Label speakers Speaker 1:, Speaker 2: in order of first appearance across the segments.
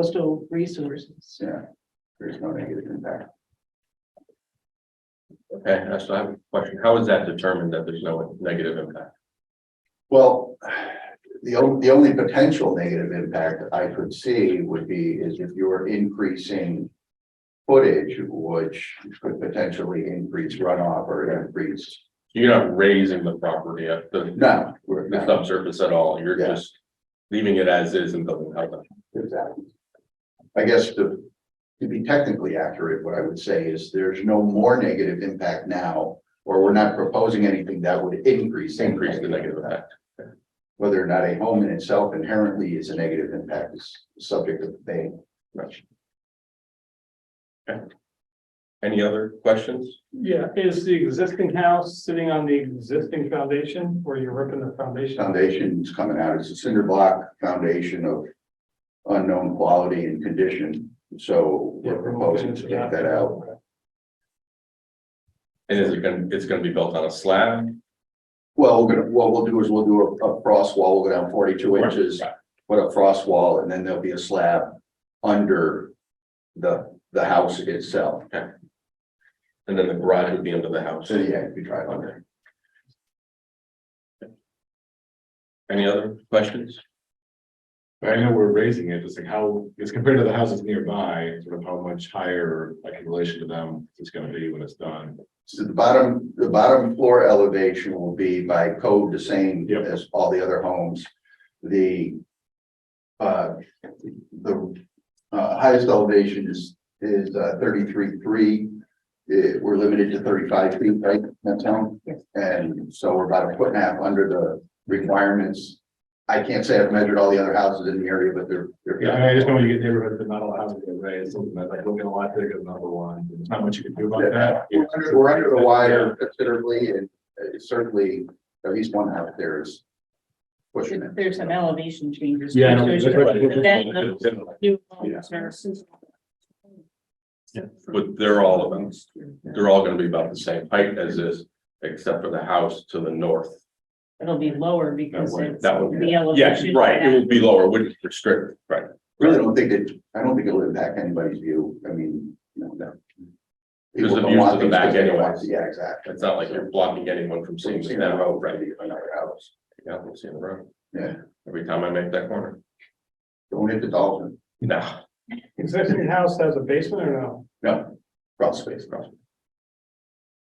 Speaker 1: coastal resources.
Speaker 2: Yeah, there's no negative impact.
Speaker 3: Okay, that's I have a question. How is that determined that there's no negative impact?
Speaker 2: Well, the only, the only potential negative impact I could see would be is if you were increasing footage, which could potentially increase runoff or increase,
Speaker 3: You're not raising the property at the,
Speaker 2: no, we're
Speaker 3: the
Speaker 2: not.
Speaker 3: subsurface at all. You're
Speaker 2: Yeah.
Speaker 3: just leaving it as is and doesn't help it.
Speaker 2: Exactly. I guess to, to be technically accurate, what I would say is there's no more negative impact now, or we're not proposing anything that would increase.
Speaker 3: Increase the negative impact.
Speaker 2: Whether or not a home in itself inherently is a negative impact is subject of debate.
Speaker 3: Any other questions?
Speaker 4: Yeah, is the existing house sitting on the existing foundation or you're ripping the foundation? out?
Speaker 2: Foundation's coming out, it's a cinder block foundation of unknown quality and condition, so
Speaker 4: Yeah,
Speaker 2: we're proposing to take that out.
Speaker 3: And is it gonna, it's gonna be built on a slab?
Speaker 2: Well, we're gonna, what we'll do is we'll do a, a frost wall, we'll go down forty-two inches, put a frost wall, and then there'll be a slab under the, the house itself.
Speaker 3: And then the garage would be under the house.
Speaker 2: So, yeah, we try it under.
Speaker 3: Any other questions?
Speaker 5: But I know we're raising it, just like how, as compared to the houses nearby, sort of how much higher, like in relation to them, it's gonna be when it's done.
Speaker 2: So the bottom, the bottom floor elevation will be by code the same
Speaker 5: Yep.
Speaker 2: as all the other homes. The. Uh, the uh highest elevation is is uh thirty-three, three. Uh, we're limited to thirty-five feet, right, that's how?
Speaker 1: Yes.
Speaker 2: And so we're about a foot and a half under the requirements. I can't say I've measured all the other houses in the area, but they're, they're.
Speaker 5: Yeah, I mean, I just know when you get neighborhoods that not all houses get raised, something that like looking a lot bigger than other one, there's not much you can do about that.
Speaker 2: We're under- we're under the wire considerably and uh, certainly at least one out there is pushing it.
Speaker 1: There's some elevation changes.
Speaker 5: Yeah. I know.
Speaker 1: There's new homes are-
Speaker 3: But they're all about, they're all gonna be about the same height as is, except for the house to the north.
Speaker 1: It'll be lower because
Speaker 3: That way-
Speaker 1: it's
Speaker 3: that would
Speaker 1: the
Speaker 3: Yes,
Speaker 1: elevation.
Speaker 3: right, it will be lower, wouldn't restrict, right.
Speaker 2: Really don't think it, I don't think it'll impact anybody's view. I mean, you know, no.
Speaker 3: Because the
Speaker 2: People don't
Speaker 3: views
Speaker 2: want
Speaker 3: to the
Speaker 2: things
Speaker 3: back
Speaker 2: they don't
Speaker 3: anyway.
Speaker 2: want. Yeah, exactly.
Speaker 3: It's not like you're blocking anyone from seeing the
Speaker 2: Seeing that
Speaker 3: road,
Speaker 2: road,
Speaker 3: right?
Speaker 2: another house.
Speaker 3: Yeah, I'm seeing the road.
Speaker 2: Yeah.
Speaker 3: Every time I make that corner,
Speaker 2: Don't hit the dolphin,
Speaker 3: no,
Speaker 4: Existing house has a basement or no?
Speaker 2: crawl space, crawl.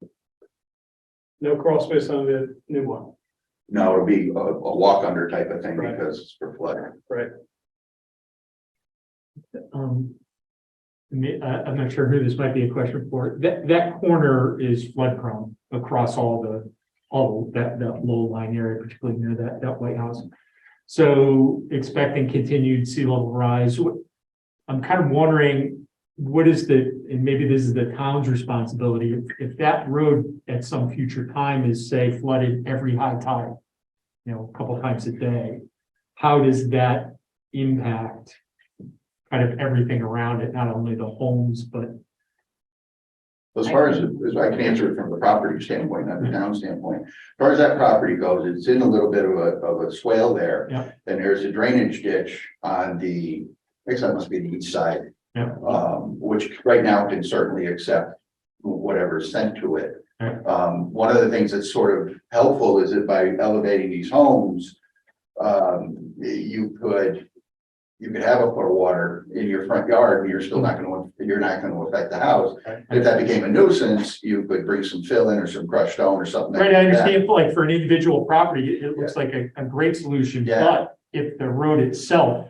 Speaker 2: space.
Speaker 4: No crawl space on the new one,
Speaker 2: No, it'll be a, a walk under type of thing
Speaker 4: Right.
Speaker 2: because it's for flood.
Speaker 4: right?
Speaker 6: Um. me- I, am not sure who this might be a question for. That, that corner is flood prone across all the, all that, that low line area, particularly near that, that White House. So expecting continued sea level rise. What- I'm kind of wondering, what is the, and maybe this is the town's responsibility, if, if that road at some future time is, say, flooded every high tide, you know, a couple times a day, how does that impact kind of everything around it, not only the homes, but
Speaker 2: As far as, as I can answer it from the property standpoint, not the town standpoint, as far as that property goes, it's in a little bit of a, of a swale there.
Speaker 6: Yeah.
Speaker 2: And there's a drainage ditch on the, I guess that must be the east side.
Speaker 6: Yeah.
Speaker 2: Um, which right now can certainly accept whatever's sent to it.
Speaker 6: Right.
Speaker 2: Um, one of the things that's sort of helpful is that by elevating these homes, um, you could, you could have a foot of water in your front yard, and you're still not gonna, you're not gonna affect the house. If that became a nuisance, you could bring some fill in or some crushed stone or something.
Speaker 6: Right, I
Speaker 2: like that.
Speaker 6: understand, like, for an individual property, it, it looks like a, a great solution,
Speaker 2: Yeah.
Speaker 6: but if the road itself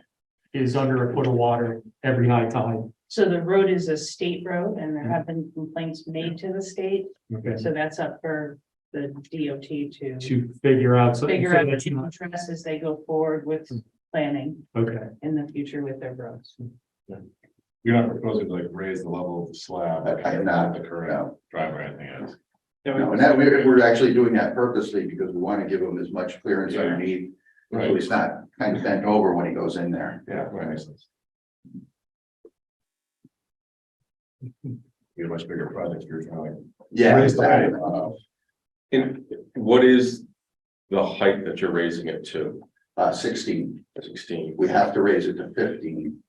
Speaker 6: is under a foot of water every high tide,
Speaker 1: So the road is a state road and there have been complaints made to the state,
Speaker 6: okay,
Speaker 1: so that's up for the DOT to
Speaker 6: to figure out, so. so
Speaker 1: figure out
Speaker 6: that's
Speaker 1: to
Speaker 6: not-
Speaker 1: address as they go forward with
Speaker 5: Hmm.
Speaker 1: planning
Speaker 6: Okay,
Speaker 1: in the future with their roads.
Speaker 5: You're not proposing to like raise the level of the slab.
Speaker 2: I- I am not,
Speaker 5: The current
Speaker 2: No,
Speaker 5: driveway, I think is.
Speaker 2: no, and that, we're, we're actually doing that purposely because we want to give him as much clearance
Speaker 5: Yeah.
Speaker 2: underneath. So
Speaker 5: Right,
Speaker 2: he's not kind of bent over when he goes in there.
Speaker 5: yeah, right, makes sense. You're a much bigger project, you're trying.
Speaker 2: Yeah.
Speaker 5: Raised height.
Speaker 2: exactly. Uh,
Speaker 3: and what is the height that you're raising it to?
Speaker 2: Uh, sixteen,
Speaker 3: Sixteen,
Speaker 2: we have to raise it to fifteen